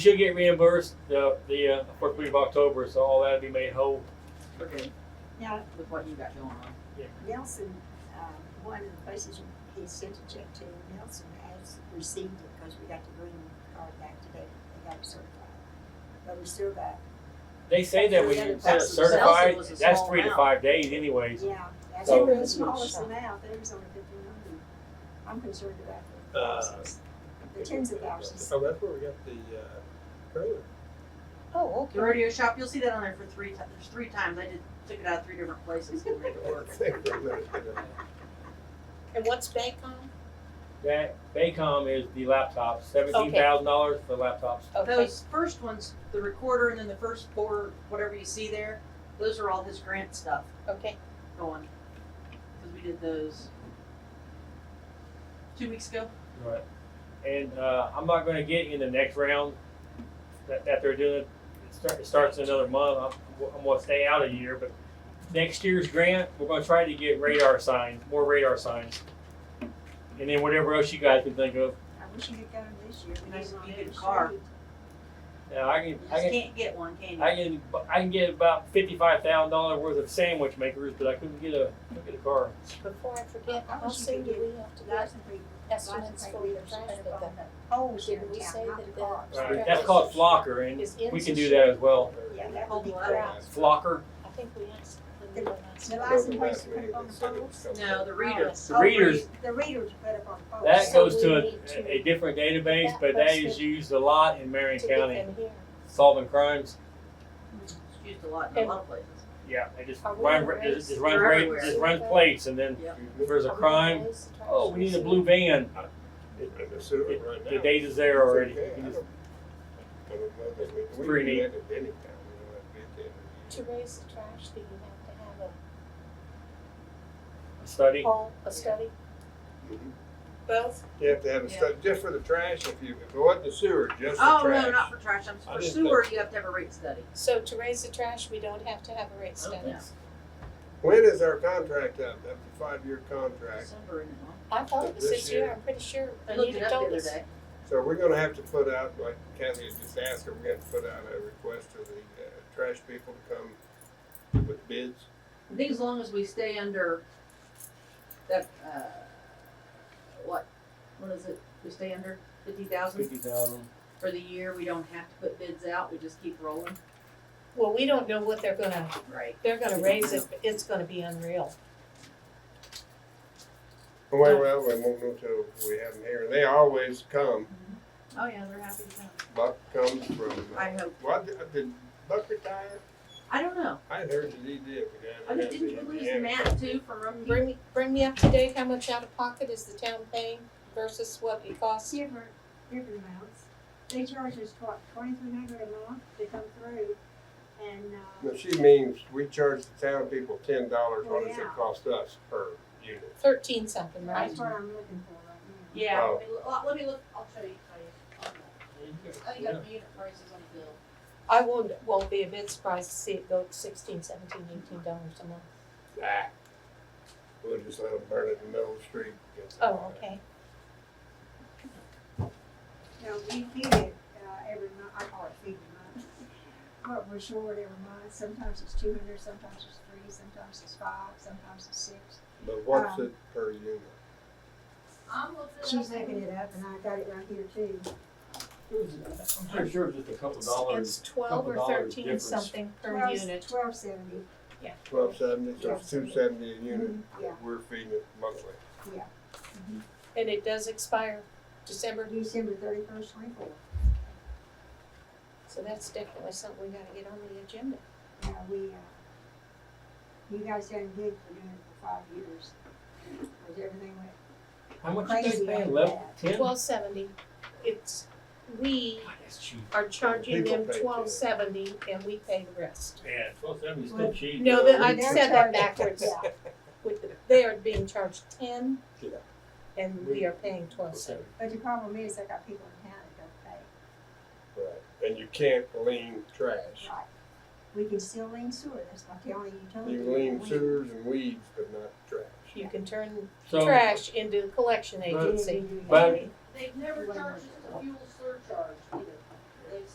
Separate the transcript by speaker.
Speaker 1: should get reimbursed the the uh, first week of October, so all that'll be made whole.
Speaker 2: Now,
Speaker 3: with what you got going on.
Speaker 2: Nelson, um, one of the places he sent a check to, Nelson has received it because we got the green card back today. They got it certified. But we still got,
Speaker 1: They say that when you send it certified, that's three to five days anyways.
Speaker 2: yeah, that's
Speaker 1: So-
Speaker 2: the smallest amount. There's only fifteen hundred. I'm concerned about the
Speaker 4: Uh,
Speaker 2: thousands, the tens of thousands.
Speaker 4: Oh, that's where we got the uh, trailer.
Speaker 5: Oh,
Speaker 3: The rodeo shop, you'll see that on there for three times, there's three times, I did, took it out three different places to make it work.
Speaker 4: I think we're gonna get it.
Speaker 5: And what's Baycom?
Speaker 1: That Baycom is the laptops, seventeen thousand dollars for laptops.
Speaker 5: Okay,
Speaker 3: Those first ones, the recorder and then the first four, whatever you see there, those are all his grant stuff
Speaker 5: okay.
Speaker 3: going. Cause we did those two weeks ago.
Speaker 1: Right. And uh, I'm not gonna get in the next round that, that they're doing. It, start, it starts in another month. I'm, I'm gonna stay out a year, but next year's grant, we're gonna try to get radar signs, more radar signs. And then whatever else you guys can think of.
Speaker 2: I wish you had gotten this year. We
Speaker 3: Nice
Speaker 2: didn't
Speaker 3: to
Speaker 2: want
Speaker 3: get a
Speaker 2: to
Speaker 3: car.
Speaker 2: shoot.
Speaker 1: Now, I can,
Speaker 3: You
Speaker 1: I
Speaker 3: just
Speaker 1: can
Speaker 3: can't get one, can you?
Speaker 1: I can I can get about fifty five thousand dollar worth of sandwich makers, but I couldn't get a couldn't get a car.
Speaker 5: Before I forget,
Speaker 2: I
Speaker 5: how
Speaker 2: wish you
Speaker 5: soon do
Speaker 2: could
Speaker 5: we have to get
Speaker 2: License plate- license
Speaker 5: estimates
Speaker 2: plate
Speaker 5: for the
Speaker 2: readers should
Speaker 5: traffic?
Speaker 2: have on
Speaker 5: though?
Speaker 2: the Poles here
Speaker 5: Did
Speaker 2: Oh, in
Speaker 5: we say
Speaker 2: town, not
Speaker 5: that
Speaker 2: the
Speaker 5: the-
Speaker 2: cars.
Speaker 1: Right, That's called flocker, and
Speaker 5: Is in
Speaker 1: we can
Speaker 5: this
Speaker 1: do
Speaker 5: year?
Speaker 1: that as well.
Speaker 2: Yeah, that would
Speaker 3: Hold
Speaker 2: be
Speaker 3: the
Speaker 2: great.
Speaker 3: light.
Speaker 1: Flocker,
Speaker 5: I think we asked. when we
Speaker 2: The-
Speaker 5: were last-
Speaker 2: the
Speaker 4: That was
Speaker 2: license
Speaker 4: the
Speaker 2: plates
Speaker 4: last
Speaker 2: put
Speaker 4: meeting
Speaker 2: up on
Speaker 4: they
Speaker 2: the
Speaker 4: said it was
Speaker 2: poles.
Speaker 4: coming.
Speaker 3: No, the reader.
Speaker 5: Yes.
Speaker 1: the readers
Speaker 2: The readers put up on the poles.
Speaker 1: that
Speaker 5: So
Speaker 1: goes
Speaker 5: we
Speaker 1: to
Speaker 5: need to-
Speaker 1: a, a different database, but that is used a lot in Marion
Speaker 5: To get
Speaker 1: County
Speaker 5: them here.
Speaker 1: solving crimes.
Speaker 3: It's used a lot in a lot of places.
Speaker 1: Yeah, they just
Speaker 5: Are we
Speaker 1: run
Speaker 5: gonna
Speaker 1: just, just
Speaker 5: raise-
Speaker 1: run
Speaker 3: They're
Speaker 1: rate,
Speaker 3: everywhere.
Speaker 1: just run plates, and then if there's a
Speaker 5: Are we
Speaker 1: crime,
Speaker 5: gonna raise the
Speaker 1: oh, we need a
Speaker 5: taxes?
Speaker 1: blue van.
Speaker 4: I'm assuming
Speaker 1: It-
Speaker 4: right now.
Speaker 1: The data is there already.
Speaker 4: It's okay. I
Speaker 1: You just-
Speaker 4: don't- I don't know that we- we
Speaker 1: pretty
Speaker 4: do
Speaker 1: neat.
Speaker 4: that at any time, you know, like we did.
Speaker 5: To raise the trash, do you have to have a
Speaker 1: a Study.
Speaker 5: poll, a study?
Speaker 4: Mhm.
Speaker 5: Both.
Speaker 4: You have to have a
Speaker 3: Yeah.
Speaker 4: study, just for the trash, if you, if it wasn't the sewer, just the
Speaker 3: Oh, no, not
Speaker 4: trash.
Speaker 3: for trash, I'm,
Speaker 4: I
Speaker 3: for
Speaker 4: didn't
Speaker 3: sewer, you have to have a rate study.
Speaker 5: So to raise the trash, we don't have to have a rate
Speaker 3: I don't
Speaker 5: study.
Speaker 3: think so.
Speaker 4: When is our contract up? That's a five-year contract,
Speaker 3: December, isn't it, huh?
Speaker 5: I thought it was
Speaker 4: This
Speaker 5: this year,
Speaker 4: year.
Speaker 5: I'm pretty sure.
Speaker 3: I looked it
Speaker 5: Anita
Speaker 3: up the
Speaker 5: told
Speaker 3: other
Speaker 5: us.
Speaker 3: day.
Speaker 4: so we're gonna have to put out, like Kathy had just asked, we're gonna have to put out a request to the, uh, trash people to come with bids.
Speaker 3: I think as long as we stay under that, uh, what, what is it, we stay under fifty thousand
Speaker 1: Fifty thousand.
Speaker 3: for the year, we don't have to put bids out, we just keep rolling.
Speaker 5: Well, we don't know what they're gonna,
Speaker 3: Right.
Speaker 5: they're gonna raise it, but it's gonna be unreal.
Speaker 4: Well, well, we won't know till we have them here. They always come.
Speaker 3: Oh, yeah, they're happy to come.
Speaker 4: Buck comes from, uh,
Speaker 3: I hope,
Speaker 4: what, did Buck retire?
Speaker 3: I don't know,
Speaker 4: I heard that he did. but I
Speaker 3: I
Speaker 4: don't
Speaker 3: mean,
Speaker 4: know
Speaker 3: Oh, didn't you
Speaker 4: if he
Speaker 3: lose
Speaker 4: had-
Speaker 3: Matt too from
Speaker 5: Bring
Speaker 3: Roman?
Speaker 5: me, bring me up to date, how much out of pocket is the town paying versus what it costs?
Speaker 2: Different, different amounts. They charge us what, twenty-three hundred a month to come through and, uh,
Speaker 4: No, she means we charge the town people ten dollars, what does it
Speaker 2: Yeah.
Speaker 4: cost us per unit?
Speaker 5: Thirteen something, right?
Speaker 2: that's what I'm looking for right now.
Speaker 3: Yeah,
Speaker 4: Oh.
Speaker 3: let me look- let me look, I'll show you, how you- on the- I think I
Speaker 1: Yeah.
Speaker 3: have unit prices on the bill.
Speaker 5: I won't, won't be a bit surprised to see it go to sixteen, seventeen, eighteen dollars a month.
Speaker 4: Ah. We'll just let them burn it in the middle of the street.
Speaker 5: Oh, okay.
Speaker 2: No, we feed it, uh, every month, I call it feed a month. But we're short every month, sometimes it's two hundred, sometimes it's three, sometimes it's five, sometimes it's six.
Speaker 4: But what's it per unit?
Speaker 3: I'm looking. it
Speaker 2: She's
Speaker 3: up.
Speaker 2: looking it up and I got it right here too.
Speaker 1: I'm pretty sure it was just a couple
Speaker 5: It's
Speaker 1: dollars.
Speaker 5: twelve or
Speaker 1: couple dollars
Speaker 5: thirteen
Speaker 1: difference.
Speaker 5: something per
Speaker 2: Twelve-
Speaker 5: unit.
Speaker 2: Twelve seventy,
Speaker 4: Twelve seventy, so it's
Speaker 2: Yeah.
Speaker 4: two seventy Mm-hmm. a unit.
Speaker 2: yeah.
Speaker 4: We're feeding it monthly.
Speaker 5: And it does expire December,
Speaker 2: December thirty-first, twenty-four.
Speaker 5: so that's definitely something we gotta get on the agenda.
Speaker 2: Now, we, uh, you guys done good for doing it for five years. Cause everything went,
Speaker 1: How much you guys
Speaker 2: Crazy
Speaker 1: paying?
Speaker 2: like
Speaker 1: Eleven,
Speaker 2: that.
Speaker 1: ten? God,
Speaker 5: Twelve seventy, it's, we
Speaker 1: that's cheap.
Speaker 5: are charging
Speaker 4: People
Speaker 5: them
Speaker 4: pay too.
Speaker 5: twelve seventy and we pay the rest.
Speaker 1: Yeah, twelve seventy is still
Speaker 2: Well,
Speaker 1: cheap.
Speaker 5: No, that, I
Speaker 2: They're
Speaker 5: said that
Speaker 2: charged-
Speaker 5: backwards.
Speaker 2: yeah,
Speaker 5: With, the- they are being charged ten
Speaker 4: Yeah.
Speaker 5: and we are paying twelve seventy.
Speaker 2: but the problem is, I got people in town that don't
Speaker 4: Right. And you can't lean trash.
Speaker 2: pay, right? We can still lean sewer, that's not the only utility.
Speaker 4: You can lean
Speaker 2: we-
Speaker 4: sewers and weeds, but not trash.
Speaker 5: You can turn
Speaker 1: So-
Speaker 5: trash into a collection agency.
Speaker 2: Yeah, we do.
Speaker 1: But-
Speaker 3: They've never charged us a fuel surcharge either.